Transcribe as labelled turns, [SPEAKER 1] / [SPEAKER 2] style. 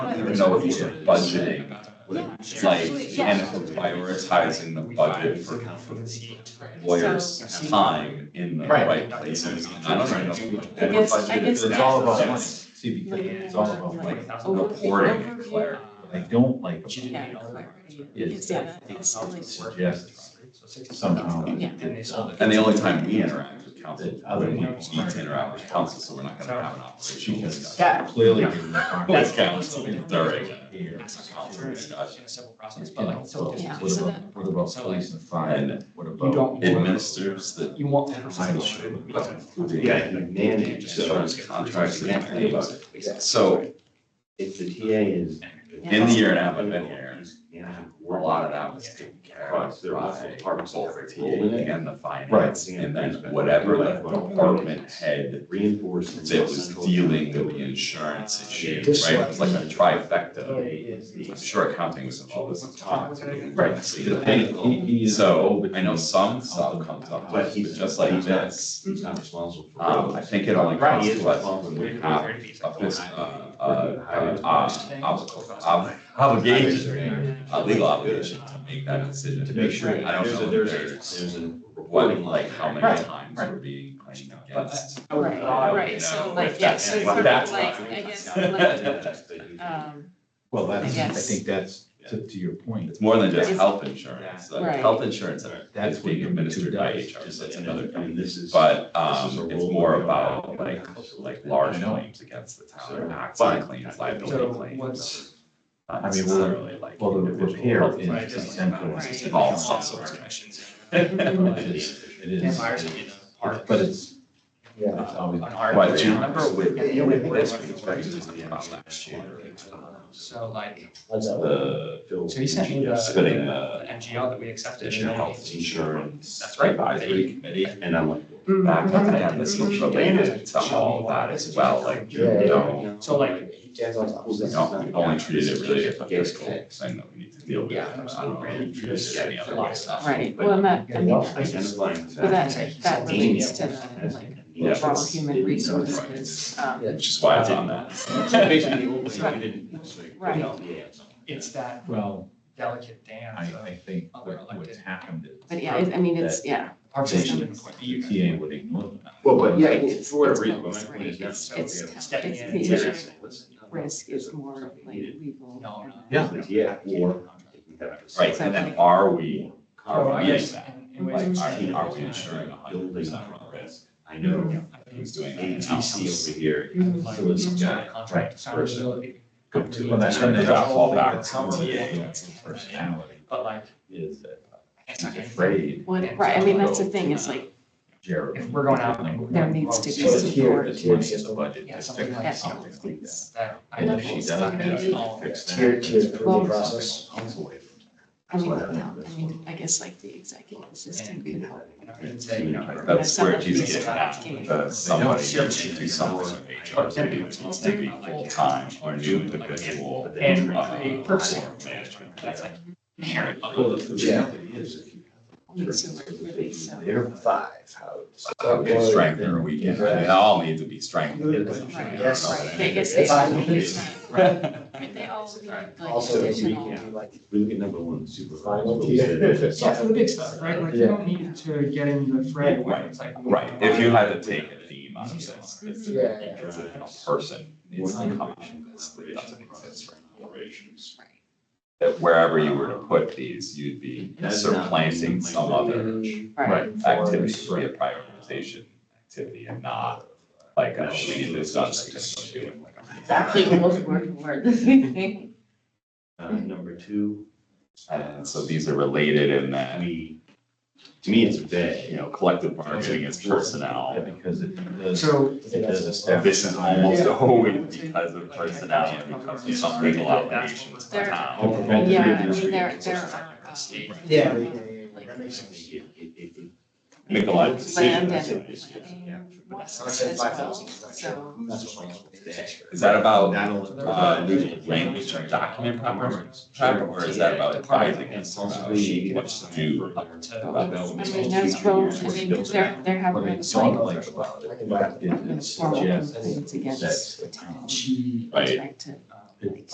[SPEAKER 1] don't even know if we're budgeting, like,
[SPEAKER 2] Yeah.
[SPEAKER 1] and if we're prioritizing the budget for lawyers' time in the
[SPEAKER 3] Right.
[SPEAKER 1] right places. I don't even know. if we're
[SPEAKER 2] I guess- I
[SPEAKER 1] budgeting
[SPEAKER 2] guess
[SPEAKER 1] for
[SPEAKER 3] It's
[SPEAKER 1] that.
[SPEAKER 3] all about money,
[SPEAKER 1] That's
[SPEAKER 3] see, because it's all about money.
[SPEAKER 2] Over-
[SPEAKER 1] Reporting,
[SPEAKER 2] overview.
[SPEAKER 1] Claire.
[SPEAKER 3] What I don't like about it
[SPEAKER 2] Yeah, clarity.
[SPEAKER 3] is
[SPEAKER 2] Yeah.
[SPEAKER 3] that it suggests somehow. that
[SPEAKER 2] Yeah.
[SPEAKER 3] it's-
[SPEAKER 1] And the only time we interact with council, is
[SPEAKER 3] That other
[SPEAKER 1] when we
[SPEAKER 3] ones
[SPEAKER 1] need
[SPEAKER 3] aren't.
[SPEAKER 1] to interact with council, so we're not gonna have an operational
[SPEAKER 3] Because
[SPEAKER 1] discussion.
[SPEAKER 3] clearly. you're not-
[SPEAKER 1] That's council during
[SPEAKER 3] Here.
[SPEAKER 1] council discussion.
[SPEAKER 3] You know, so what
[SPEAKER 2] Yeah,
[SPEAKER 3] about,
[SPEAKER 2] so that-
[SPEAKER 3] what about police and fire?
[SPEAKER 1] And
[SPEAKER 3] What
[SPEAKER 4] You
[SPEAKER 3] about?
[SPEAKER 4] don't.
[SPEAKER 1] It Administers the
[SPEAKER 4] You want.
[SPEAKER 3] I'm sure.
[SPEAKER 5] Yeah, you manage, so
[SPEAKER 1] insurance contracts, they can't think about it.
[SPEAKER 5] Yeah.
[SPEAKER 1] So
[SPEAKER 5] if the TA is.
[SPEAKER 1] in the year and a half I've been here,
[SPEAKER 5] Yeah.
[SPEAKER 1] a lot of that was taken care of by both the TA and the finance. And then whatever the department head,
[SPEAKER 5] Reinforcing.
[SPEAKER 1] it was dealing with the insurance issue, right? It was like a
[SPEAKER 5] Oh,
[SPEAKER 1] trifecta. I'm sure accounting was involved at the time. Right. So you
[SPEAKER 3] He-
[SPEAKER 1] think-
[SPEAKER 3] he's-
[SPEAKER 1] so uh, I know some stuff comes up, but just like this.
[SPEAKER 5] He's not responsible for.
[SPEAKER 1] Um, I think it only comes
[SPEAKER 5] He is
[SPEAKER 1] to us
[SPEAKER 5] responsible.
[SPEAKER 1] when we have a fis- uh, uh, uh, uh, ob- ob- obligation, a legal obligation to make that decision.
[SPEAKER 5] To make sure.
[SPEAKER 1] I don't
[SPEAKER 5] there's a-
[SPEAKER 1] know if
[SPEAKER 5] There's a,
[SPEAKER 1] there's,
[SPEAKER 5] there's a
[SPEAKER 1] what,
[SPEAKER 5] reporting
[SPEAKER 1] like,
[SPEAKER 5] line.
[SPEAKER 1] how many
[SPEAKER 3] Right,
[SPEAKER 1] times
[SPEAKER 3] right.
[SPEAKER 1] we're being claimed against.
[SPEAKER 2] Right, right, so like, yeah, so
[SPEAKER 1] If
[SPEAKER 2] sort of
[SPEAKER 1] that's
[SPEAKER 2] like,
[SPEAKER 1] not-
[SPEAKER 2] I guess, like,
[SPEAKER 5] like. uh,
[SPEAKER 2] um,
[SPEAKER 3] Well, that's, I
[SPEAKER 2] guess.
[SPEAKER 3] think that's, to, to your point,
[SPEAKER 1] It's more than just
[SPEAKER 2] It's-
[SPEAKER 1] health insurance, like,
[SPEAKER 2] Right.
[SPEAKER 1] health insurance
[SPEAKER 3] that's
[SPEAKER 1] is
[SPEAKER 3] what
[SPEAKER 1] being
[SPEAKER 3] you're two
[SPEAKER 1] administered by
[SPEAKER 3] does.
[SPEAKER 1] HR, so that's
[SPEAKER 5] And
[SPEAKER 1] another
[SPEAKER 5] I mean, this is.
[SPEAKER 1] But
[SPEAKER 5] This is a
[SPEAKER 1] um, it's
[SPEAKER 5] role
[SPEAKER 1] more
[SPEAKER 5] we don't
[SPEAKER 1] about
[SPEAKER 5] have.
[SPEAKER 1] like, like large
[SPEAKER 3] I know.
[SPEAKER 1] claims against the
[SPEAKER 5] So,
[SPEAKER 1] town, accident
[SPEAKER 5] but-
[SPEAKER 1] claims,
[SPEAKER 4] So
[SPEAKER 1] liability claims.
[SPEAKER 4] what's-
[SPEAKER 1] Not
[SPEAKER 3] I mean, we're-
[SPEAKER 1] necessarily like.
[SPEAKER 3] well, the
[SPEAKER 1] individual
[SPEAKER 3] repair
[SPEAKER 1] health
[SPEAKER 3] is
[SPEAKER 1] claims, like,
[SPEAKER 3] central
[SPEAKER 1] it's
[SPEAKER 2] to
[SPEAKER 1] just
[SPEAKER 2] the
[SPEAKER 1] All
[SPEAKER 2] council.
[SPEAKER 1] sorts of.
[SPEAKER 3] it is, it is, but it's,
[SPEAKER 4] Uh,
[SPEAKER 3] it's always.
[SPEAKER 1] But do you remember with,
[SPEAKER 4] Yeah, yeah, we-
[SPEAKER 1] with this, we expected this to be about last year.
[SPEAKER 5] uh,
[SPEAKER 4] So like,
[SPEAKER 3] uh,
[SPEAKER 5] The. Phil-
[SPEAKER 4] so he sent me the.
[SPEAKER 5] Spinning the.
[SPEAKER 4] MGL that we accepted. and
[SPEAKER 1] National
[SPEAKER 4] then-
[SPEAKER 1] Health Insurance.
[SPEAKER 4] That's right.
[SPEAKER 1] Advisory Committee.
[SPEAKER 5] And I'm like.
[SPEAKER 1] That kind of had this little related to all that as well, like, you
[SPEAKER 5] Yeah.
[SPEAKER 1] know,
[SPEAKER 4] So like,
[SPEAKER 1] you know, we only treated it really as a fiscal thing that we need to deal with.
[SPEAKER 4] Yeah.
[SPEAKER 1] I don't really treat it as any other way stuff.
[SPEAKER 2] right, well, and that, I mean,
[SPEAKER 5] Identifying.
[SPEAKER 2] but that, that relates to the, like,
[SPEAKER 5] Yeah.
[SPEAKER 2] overall human resources, um,
[SPEAKER 1] Which is why it's on that.
[SPEAKER 5] Basically, the old way we didn't.
[SPEAKER 2] Right.
[SPEAKER 5] Yeah.
[SPEAKER 4] it's that
[SPEAKER 3] Well,
[SPEAKER 4] delicate
[SPEAKER 3] I,
[SPEAKER 4] dance
[SPEAKER 3] I
[SPEAKER 4] of
[SPEAKER 3] think what, what's happened is.
[SPEAKER 2] but yeah, I I mean, it's, yeah,
[SPEAKER 4] participation
[SPEAKER 2] They-
[SPEAKER 4] and appointment.
[SPEAKER 3] The TA E would ignore that.
[SPEAKER 5] Well, but
[SPEAKER 2] Yeah,
[SPEAKER 5] yeah,
[SPEAKER 2] it's-
[SPEAKER 5] for whatever
[SPEAKER 2] it's
[SPEAKER 5] reason,
[SPEAKER 2] both,
[SPEAKER 5] my
[SPEAKER 2] right?
[SPEAKER 5] point is now.
[SPEAKER 2] It's- it's
[SPEAKER 5] yeah.
[SPEAKER 2] town-
[SPEAKER 4] Stepping
[SPEAKER 2] it's
[SPEAKER 4] in.
[SPEAKER 2] the
[SPEAKER 5] Yeah.
[SPEAKER 2] insurance
[SPEAKER 5] Yeah.
[SPEAKER 2] risk is more like legal. uh,
[SPEAKER 4] No, no.
[SPEAKER 3] Yeah.
[SPEAKER 5] Yeah, or.
[SPEAKER 1] Right, and then are we, are we,
[SPEAKER 4] Yes,
[SPEAKER 1] like,
[SPEAKER 4] and- and ways of
[SPEAKER 1] are
[SPEAKER 4] saying-
[SPEAKER 1] we, are we ensuring a hundred percent from risk?
[SPEAKER 5] I know
[SPEAKER 4] I think
[SPEAKER 1] Who's doing that
[SPEAKER 5] ATC
[SPEAKER 1] analysis?
[SPEAKER 5] over here.
[SPEAKER 2] Mhm.
[SPEAKER 4] like
[SPEAKER 3] So it's
[SPEAKER 4] some sort of
[SPEAKER 3] giant,
[SPEAKER 4] Contract. Accountability.
[SPEAKER 3] Come to.
[SPEAKER 4] Well, that's when they got
[SPEAKER 1] fall back to
[SPEAKER 4] TA.
[SPEAKER 3] That's the personality,
[SPEAKER 4] But like,
[SPEAKER 3] is that
[SPEAKER 4] it's
[SPEAKER 3] he's
[SPEAKER 4] not gonna-
[SPEAKER 3] afraid
[SPEAKER 2] What, right, I mean, that's the thing, it's like,
[SPEAKER 3] Jared.
[SPEAKER 4] If we're going out,
[SPEAKER 3] Number
[SPEAKER 2] there
[SPEAKER 3] one,
[SPEAKER 2] needs to be
[SPEAKER 3] she doesn't care
[SPEAKER 2] support.
[SPEAKER 3] as much as the budget,
[SPEAKER 4] Yeah,
[SPEAKER 3] to
[SPEAKER 4] something
[SPEAKER 3] fix
[SPEAKER 4] like that.
[SPEAKER 3] something like that.
[SPEAKER 4] that I
[SPEAKER 3] And
[SPEAKER 4] know
[SPEAKER 3] if she
[SPEAKER 4] she's
[SPEAKER 3] does
[SPEAKER 4] not
[SPEAKER 3] have
[SPEAKER 4] gonna
[SPEAKER 3] to
[SPEAKER 4] do all of
[SPEAKER 3] fix
[SPEAKER 4] it.
[SPEAKER 3] that.
[SPEAKER 6] Tier two is
[SPEAKER 3] that's
[SPEAKER 6] approval
[SPEAKER 3] something
[SPEAKER 6] process.
[SPEAKER 3] else away from it.
[SPEAKER 2] I mean,
[SPEAKER 5] That's what I
[SPEAKER 2] no,
[SPEAKER 5] think.
[SPEAKER 2] I mean, I guess like the executive assistant could help.
[SPEAKER 4] And I would say, you know,
[SPEAKER 1] That's where
[SPEAKER 2] Someone
[SPEAKER 1] he's
[SPEAKER 2] who's
[SPEAKER 1] getting at,
[SPEAKER 2] tracking.
[SPEAKER 1] that uh, somebody needs to do something with HR, maybe it needs to be full-time or new individual.
[SPEAKER 4] And
[SPEAKER 1] uh,
[SPEAKER 4] a person.
[SPEAKER 1] or management.
[SPEAKER 4] That's like,
[SPEAKER 3] Well, the reality is, if you-
[SPEAKER 2] And so we're really, so-
[SPEAKER 3] They're
[SPEAKER 6] Five, how.
[SPEAKER 1] Okay, strength or weekend, they all need to be strengthened.
[SPEAKER 2] Right,
[SPEAKER 6] Yes.
[SPEAKER 2] right, they, it's, it's,
[SPEAKER 6] Five
[SPEAKER 2] it's,
[SPEAKER 6] minutes.
[SPEAKER 2] right, they all need like
[SPEAKER 6] Also, if we
[SPEAKER 2] additional.
[SPEAKER 6] can do like
[SPEAKER 5] We look at number one, supervisor.
[SPEAKER 6] Final tier.
[SPEAKER 4] yeah, for the big stuff, right? Like you
[SPEAKER 6] Yeah.
[SPEAKER 4] don't need to get in the fray where it's like. uh,
[SPEAKER 1] Right, if you had to take a theme out of this, it's a
[SPEAKER 6] Yeah.
[SPEAKER 1] person, it's a combination of this that doesn't exist right now.
[SPEAKER 2] Right.
[SPEAKER 1] That wherever you were to put these, you'd be supplanting some other
[SPEAKER 2] Right,
[SPEAKER 1] activity, to be a prioritization activity and not like, oh, we need this done, so just do it.
[SPEAKER 2] exactly, word, word, word.
[SPEAKER 5] Uh,
[SPEAKER 1] Mm-hmm.
[SPEAKER 5] number two,
[SPEAKER 1] And so these are related in that,
[SPEAKER 5] we, to me, it's
[SPEAKER 1] you
[SPEAKER 5] vague.
[SPEAKER 1] know, collective bargaining is personnel.
[SPEAKER 3] Because it does,
[SPEAKER 4] So
[SPEAKER 3] it does
[SPEAKER 1] And
[SPEAKER 3] establish.
[SPEAKER 1] This is almost always because of personnel, and because of some legal obligations to the town.
[SPEAKER 2] Yeah, I mean, there, there are, uh,
[SPEAKER 6] Yeah.
[SPEAKER 2] like,
[SPEAKER 5] It- it- it- it-
[SPEAKER 1] Make a lot of
[SPEAKER 2] land
[SPEAKER 1] decisions.
[SPEAKER 2] and planning ones as well, so.
[SPEAKER 6] That's what I'm saying.
[SPEAKER 1] Is that about
[SPEAKER 5] That'll-
[SPEAKER 1] uh, language or document proper, proper, or is that about advising and
[SPEAKER 5] Responsibility.
[SPEAKER 1] what uh, to do?
[SPEAKER 4] to.
[SPEAKER 1] about that?
[SPEAKER 2] I mean, there's both, I mean, because there, there have
[SPEAKER 3] What I
[SPEAKER 2] been
[SPEAKER 3] don't
[SPEAKER 2] like
[SPEAKER 3] like about
[SPEAKER 6] I
[SPEAKER 3] it,
[SPEAKER 6] can buy it.
[SPEAKER 3] it
[SPEAKER 2] formal
[SPEAKER 3] suggests
[SPEAKER 2] complaints against
[SPEAKER 3] that
[SPEAKER 2] the
[SPEAKER 3] the town
[SPEAKER 2] town.
[SPEAKER 4] She,
[SPEAKER 1] Right.
[SPEAKER 2] Back to,
[SPEAKER 4] um,
[SPEAKER 2] like,